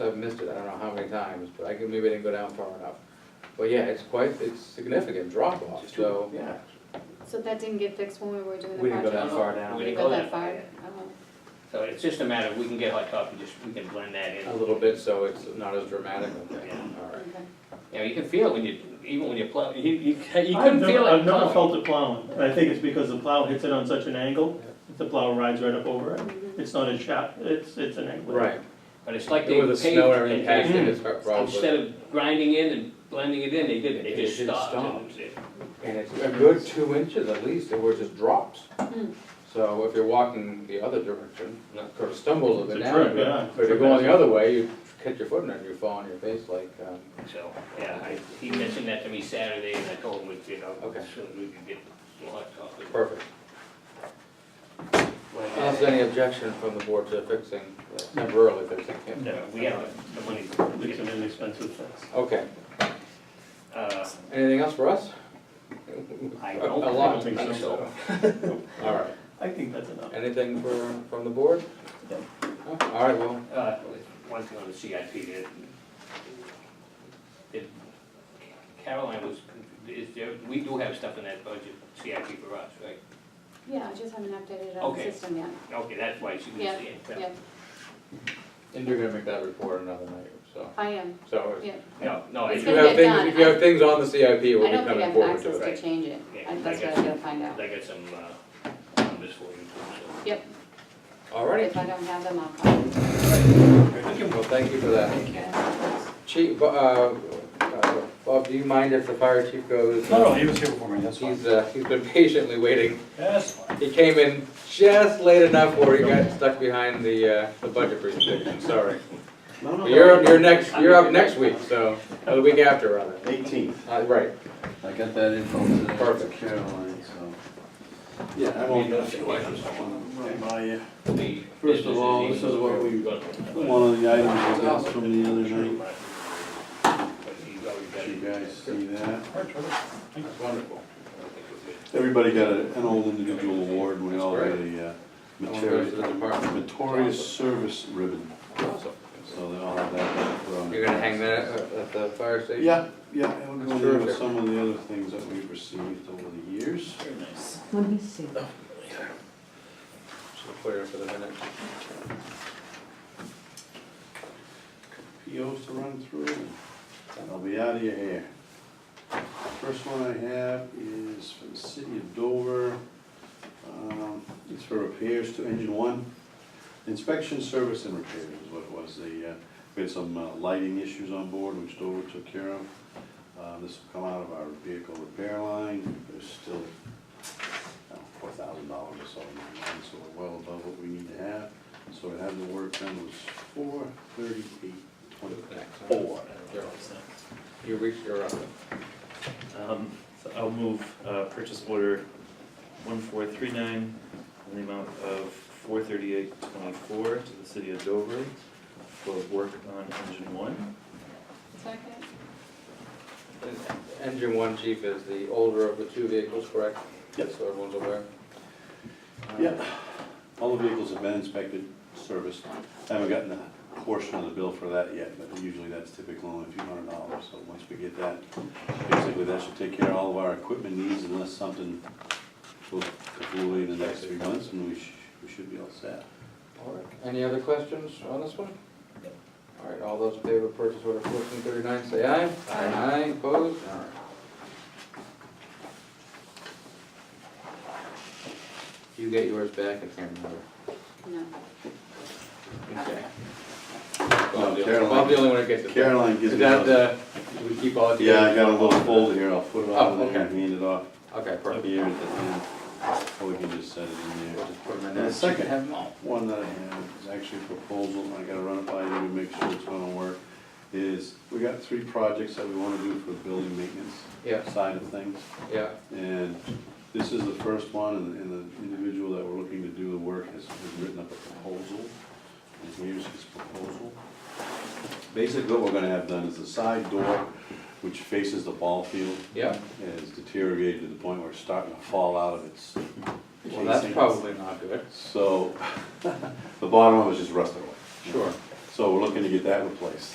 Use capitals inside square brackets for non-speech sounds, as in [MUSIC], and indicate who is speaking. Speaker 1: I've missed it, I don't know how many times, but I can, maybe I didn't go down far enough. But yeah, it's quite, it's significant drop off, so,
Speaker 2: Yeah.
Speaker 3: So that didn't get fixed when we were doing the
Speaker 1: We didn't go
Speaker 3: project?
Speaker 1: that far down.
Speaker 2: We
Speaker 3: Didn't
Speaker 2: didn't
Speaker 3: Go
Speaker 2: go
Speaker 3: that
Speaker 2: that
Speaker 3: far?
Speaker 2: So it's just a matter, of we can get hot top and just, we can blend that in.
Speaker 1: a little bit, so it's not as dramatic, okay,
Speaker 2: Yeah.
Speaker 3: Oh,
Speaker 1: all right.
Speaker 3: okay.
Speaker 2: You know, you can feel it when you, even when you plow, you, you, you
Speaker 4: I've
Speaker 2: couldn't
Speaker 4: never-
Speaker 2: feel it.
Speaker 4: I've never
Speaker 2: coming.
Speaker 4: felt it plowing, and I think it's because the plow hits it on such an angle, the plow rides right up over it. It's not as sharp, it's, it's an angle.
Speaker 1: Right,
Speaker 2: But it's like they
Speaker 1: with the
Speaker 2: paved,
Speaker 1: snow and everything
Speaker 2: and
Speaker 1: packed in,
Speaker 2: they,
Speaker 1: it's probably,
Speaker 2: instead of grinding in and blending it in, they did,
Speaker 1: They
Speaker 2: they just
Speaker 1: just
Speaker 2: stopped. and
Speaker 1: stopped.
Speaker 2: it was it.
Speaker 1: and it's a good two inches at least, where it just drops.
Speaker 3: Hmm.
Speaker 1: So if you're walking the other direction,
Speaker 2: Not-
Speaker 1: sort of stumble a
Speaker 4: It's
Speaker 1: bit
Speaker 4: a
Speaker 1: down.
Speaker 4: trip, yeah.
Speaker 1: But if you're going the other way, you catch your foot in it and you fall on your face like, um,
Speaker 2: So, yeah, I, he mentioned that to me Saturday, and I told him, we, you know,
Speaker 1: Okay.
Speaker 2: as soon as we could get some hot top. and-
Speaker 1: perfect. Unless there's any objection from the board to fixing, uh, temporarily fixing it.
Speaker 2: No, uh, we have the money, we
Speaker 4: It's
Speaker 2: get
Speaker 4: an
Speaker 2: the,
Speaker 4: inexpensive fix.
Speaker 1: Okay,
Speaker 2: uh,
Speaker 1: anything else for us?
Speaker 2: I
Speaker 1: A
Speaker 2: don't, I
Speaker 1: lot.
Speaker 2: don't think so.
Speaker 1: All right,
Speaker 4: I think that's enough.
Speaker 1: anything for, from the board?
Speaker 4: No.
Speaker 1: No? All right, well,
Speaker 2: Uh, one thing on the CIP, that, that Caroline was, is there, we do have stuff in that budget, CIP for us, right?
Speaker 3: Yeah, I just haven't updated it on the
Speaker 2: Okay.
Speaker 3: system yet.
Speaker 2: Okay, that's why she was
Speaker 3: Yeah,
Speaker 2: saying,
Speaker 3: Yeah,
Speaker 1: and you're gonna make that report another night, so,
Speaker 3: I am,
Speaker 1: so.
Speaker 3: yeah.
Speaker 2: no, no, I
Speaker 3: It's
Speaker 1: If
Speaker 2: just,
Speaker 1: you
Speaker 3: gonna
Speaker 1: have
Speaker 3: get
Speaker 1: things,
Speaker 3: done.
Speaker 1: if you have things on the CIP,
Speaker 3: I
Speaker 1: we'll be
Speaker 3: don't think I
Speaker 1: coming
Speaker 3: have
Speaker 1: forward to
Speaker 3: access
Speaker 1: it.
Speaker 3: to
Speaker 2: Right.
Speaker 3: change it.
Speaker 2: Yeah, I
Speaker 3: I- That's what
Speaker 2: guess-
Speaker 3: I gotta find out.
Speaker 2: I got some, uh, numbers for you, so.
Speaker 3: Yep,
Speaker 1: All right,
Speaker 3: if I don't have them, I'll call.
Speaker 1: well, thank you for that.
Speaker 3: Okay.
Speaker 1: Chief, Bo- uh, uh, Bob, do you mind if the fire chief goes?
Speaker 5: No, no, he was here before me, that's fine.
Speaker 1: He's, uh, he's been [LAUGHS] patiently waiting.
Speaker 5: That's fine.
Speaker 1: He came in just late enough where he got stuck behind the, uh, the budget presentation, sorry. You're, up- you're next, you're up next week, so, or the week after, rather.
Speaker 6: Eighteenth,
Speaker 1: Uh, right,
Speaker 6: I got that info today.
Speaker 1: Perfect.
Speaker 6: Caroline, so. Yeah, I won't get a few items I want to run by you.
Speaker 2: The
Speaker 6: First of all, this is what we- One of the items I got from the other night, Did you guys see that.
Speaker 1: that's wonderful.
Speaker 6: Everybody got a- an old individual award, and we all got a uh, materi- meritorious service ribbon,
Speaker 1: Awesome.
Speaker 6: so they all have that put on.
Speaker 1: You're gonna hang that at at the fire station?
Speaker 6: Yeah, yeah, it'll go
Speaker 1: That's
Speaker 6: there with
Speaker 1: terrific.
Speaker 6: some of the other things that we've received over the years.
Speaker 7: Let me see.
Speaker 1: Should put it for the minute.
Speaker 6: POs to run through, and I'll be out of your hair. First one I have is for the city of Dover. Um, It's for repairs to engine one. Inspection service and repairs is what it was. They, uh, we had some uh, lighting issues on board, which Dover took care of. Uh, This will come out of our vehicle repair line. There's still four thousand dollars or so in that line, so we're well above what we need to have. So to have the work done was four thirty-eight twenty-four.
Speaker 1: You reached your, uh,
Speaker 8: Um, so I'll move, uh, purchase order one four three nine in the amount of four thirty-eight twenty-four to the city of Dover for work on engine one.
Speaker 3: Second?
Speaker 1: engine one chief is the older of the two vehicles, correct?
Speaker 6: Yes.
Speaker 1: So everyone's aware?
Speaker 6: Yep. All the vehicles have been inspected, serviced. I haven't gotten a portion of the bill for that yet, but usually that's typical only a few hundred dollars. So once we get that, basically that should take care of all of our equipment needs unless something goes completely in the next three months and we sh- we should be all set.
Speaker 1: All right, any other questions on this one? All right, all those in favor of purchase order fourteen thirty-nine, say aye.
Speaker 2: Aye.
Speaker 1: Aye, opposed? All right. You get yours back, I can't remember.
Speaker 3: No.
Speaker 1: Okay.
Speaker 6: No,
Speaker 1: Bob's the
Speaker 6: Caroline,
Speaker 1: only one who gets it. back.
Speaker 6: Caroline
Speaker 1: Is
Speaker 6: gives me
Speaker 1: that
Speaker 6: those.
Speaker 1: the, do we keep all of the?
Speaker 6: Yeah, I got a little folder here. I'll put it on
Speaker 1: Oh,
Speaker 6: there and
Speaker 1: okay.
Speaker 6: hand it off
Speaker 1: Okay, perfect.
Speaker 6: here at the end. Or we can just set it in there.
Speaker 1: We'll just put them in
Speaker 6: And the
Speaker 1: there.
Speaker 6: second-
Speaker 1: Have them all.
Speaker 6: One that I have is actually a proposal, and I gotta run it by you to make sure it's gonna work, is we got three projects that we wanna do for building maintenance
Speaker 1: Yeah,
Speaker 6: side of things.
Speaker 1: yeah,
Speaker 6: And this is the first one, and, and the individual that we're looking to do the work has, has written up a proposal. And here's his proposal. Basically, what we're gonna have done is the side door, which faces the ball field,
Speaker 1: yeah.
Speaker 6: has deteriorated to the point where it's starting to fall out of its
Speaker 1: Well, that's
Speaker 6: casing. [LAUGHS]
Speaker 1: probably not good.
Speaker 6: So, the bottom one was just rusted away.
Speaker 1: Sure.
Speaker 6: So So we're looking to get that replaced.